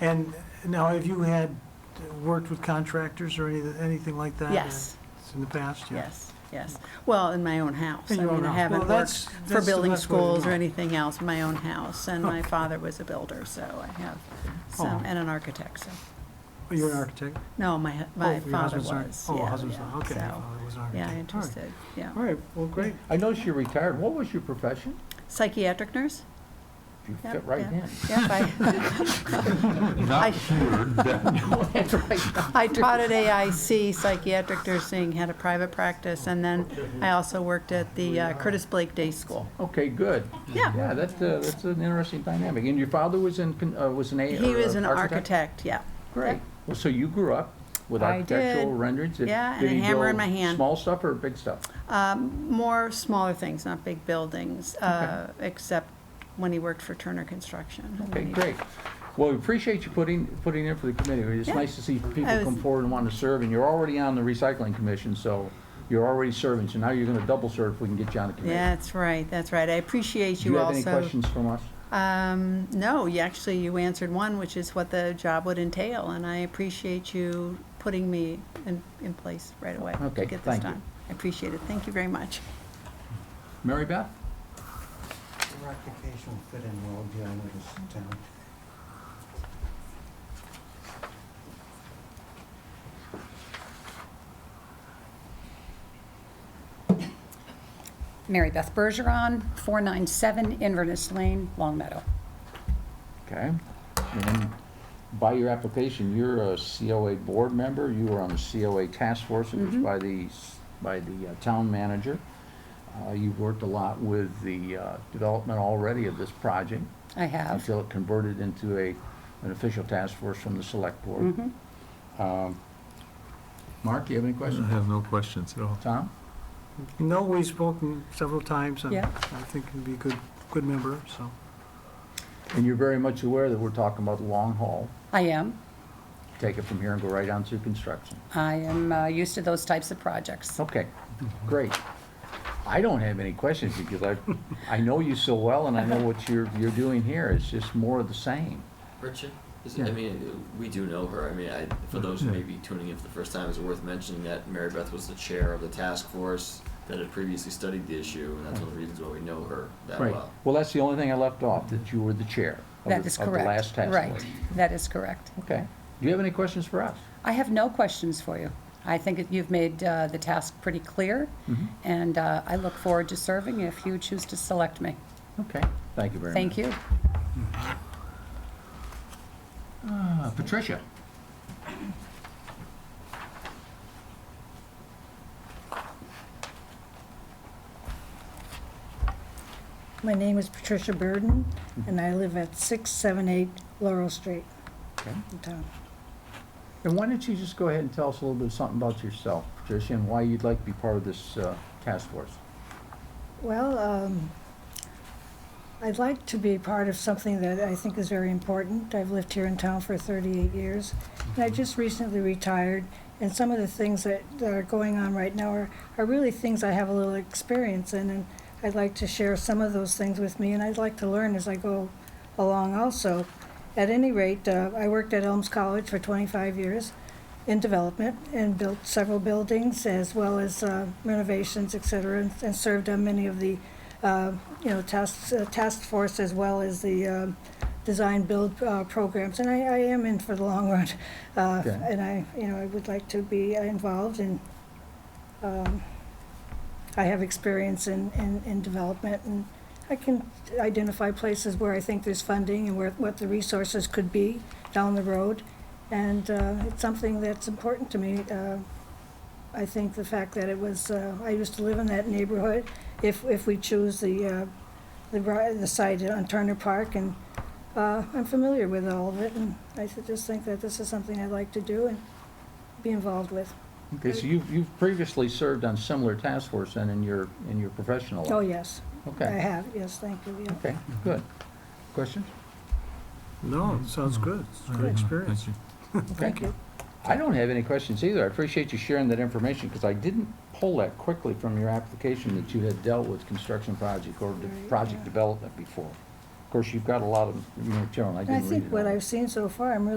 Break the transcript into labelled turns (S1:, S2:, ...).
S1: And now, have you had, worked with contractors or any- anything like that?
S2: Yes,
S1: In the past? yeah.
S2: yes, yes. Well, in my own house.
S1: In
S2: I
S1: your
S2: mean,
S1: own
S2: I
S1: house. Well,
S2: haven't
S1: that's-
S2: worked for
S1: that's the
S2: building
S1: best way to
S2: schools or
S1: go.
S2: anything else, my own house. And my father was a builder, so I have some,
S1: Oh.
S2: and an architect, so.
S1: Oh, You're an architect?
S2: No, my, hu-
S1: Oh,
S2: my
S1: your
S2: father
S1: husband's an-
S2: was.
S1: Oh,
S2: yeah,
S1: husband's,
S2: yeah,
S1: okay.
S2: so,
S1: your father was an architect.
S2: Yeah,
S1: All right.
S2: interested, yeah.
S1: All right, well, great.
S3: I noticed you're retired. What was your profession?
S2: Psychiatric nurse?
S3: You
S2: Yep,
S3: fit right
S2: yeah.
S3: in.
S2: Yep, I, I-
S4: Not cured, that-
S3: That's right.
S2: I taught at AIC psychiatric nursing, had a private practice, and then I also worked at the uh, Curtis Blake Day School.
S3: Oh, Okay, good.
S2: Yeah.
S3: Yeah, that, uh, that's an interesting dynamic. And your father was in, con- uh, was an A?
S2: He
S3: or
S2: was
S3: a
S2: an architect, yeah.
S3: Great. Well, so you grew up with
S2: I
S3: architectural
S2: did.
S3: renderings? Did-
S2: Yeah, and
S3: did
S2: a
S3: he
S2: hammer in
S3: build
S2: my hand.
S3: Small stuff or big stuff?
S2: Um, More smaller things, not big buildings, uh, except when he worked for Turner Construction.
S3: Okay, great. Well, we appreciate you putting, putting in for the committee. It's
S2: Yeah.
S3: nice to see people
S2: I was-
S3: come forward and want to serve, and you're already on the recycling commission, so you're already serving, so now you're going to double serve if we can get you on the committee.
S2: That's right, that's right. I appreciate
S3: Do you
S2: you
S3: have
S2: also.
S3: any questions from us?
S2: Um, no, you actually, you answered one, which is what the job would entail, and I appreciate you putting me in, in place right away
S3: Okay,
S2: to get this
S3: thank you.
S2: done. I appreciate it. Thank you very much.
S3: Mary Beth?
S5: Your application will fit in well dealing with this town.
S6: Mary Beth Bergeron, 497 Inverness Lane, Long Meadow.
S3: Okay. And by your application, you're a COA board member, you were on the COA task force, it was by the, s- by the uh, town manager. Uh, You've worked a lot with the uh, development already of this project
S6: I have.
S3: until it converted into a, an official task force from the select board.
S6: Mm-hmm.
S3: Um, Mark, you have any
S4: I
S3: questions?
S4: have no questions at all.
S3: Tom?
S1: No, we've spoken several times, and
S6: Yeah.
S1: I think he'd be a good, good member, so.
S3: And you're very much aware that we're talking about the long haul,
S6: I am.
S3: take it from here and go right on to construction.
S6: I am uh, used to those types of projects.
S3: Okay, great. I don't have any questions because I, I know you so well and I know what you're, you're doing here. It's just more of the same.
S7: Richard? Is
S3: Yeah.
S7: I mean, we do know her. I mean, I, for those who may be tuning in for the first time, it's worth mentioning that Mary Beth was the chair of the task force that had previously studied the issue, and that's one of the reasons why we know her that
S3: Right.
S7: well.
S3: Well, that's the only thing I left off, that you were the chair of
S6: That
S3: the-
S6: is
S3: of the last task
S6: correct. Right,
S3: force.
S6: that is correct.
S3: Okay. Do you have any questions for us?
S6: I have no questions for you. I think that you've made uh, the task pretty clear,
S3: Mm-hmm.
S6: and uh, I look forward to serving if you choose to select me.
S3: Okay, thank you very much.
S6: Thank you.
S3: Uh, Patricia?
S8: My name is Patricia Burden, and I live at 678 Laurel Street
S3: Okay.
S8: in town.
S3: And why don't you just go ahead and tell us a little bit something about yourself, Patricia, and why you'd like to be part of this uh, task force?
S8: Well, um, I'd like to be part of something that I think is very important. I've lived here in town for 38 years, and I just recently retired, and some of the things that that are going on right now are are really things I have a little experience in, and I'd like to share some of those things with me, and I'd like to learn as I go along also. At any rate, uh, I worked at Elms College for 25 years in development and built several buildings as well as uh, renovations, et cetera, and- and served on many of the, uh, you know, tasks, uh, task force as well as the um, design build uh, programs. And I, I am in for the long run. Uh,
S3: Okay.
S8: And I, you know, I would like to be involved in, um, I have experience in, in, in development and I can identify places where I think there's funding and where, what the resources could be down the road. And uh, it's something that's important to me. Uh, I think the fact that it was, uh, I used to live in that neighborhood. If, if we choose the, uh, the ri- the site on Turner Park and uh, I'm familiar with all of it. And I should just think that this is something I'd like to do and be involved with.
S3: Okay, so you've, you've previously served on similar task force and in your, in your professional life?
S8: Oh, yes, I
S3: Okay.
S8: have, yes, thank you, yeah.
S3: Okay, good. Questions?
S1: No,
S5: Mm-hmm.
S1: it sounds good. It's a good experience.
S4: Thank you.
S3: Thank you. I don't have any questions either. I appreciate you sharing that information, because I didn't pull that quickly from your application that you had dealt with construction project or de-
S8: Right,
S3: project
S8: yeah.
S3: development before. Of course, you've got a lot of material, I
S8: And I
S3: didn't read it
S8: think what
S3: all.
S8: I've seen so far, I'm really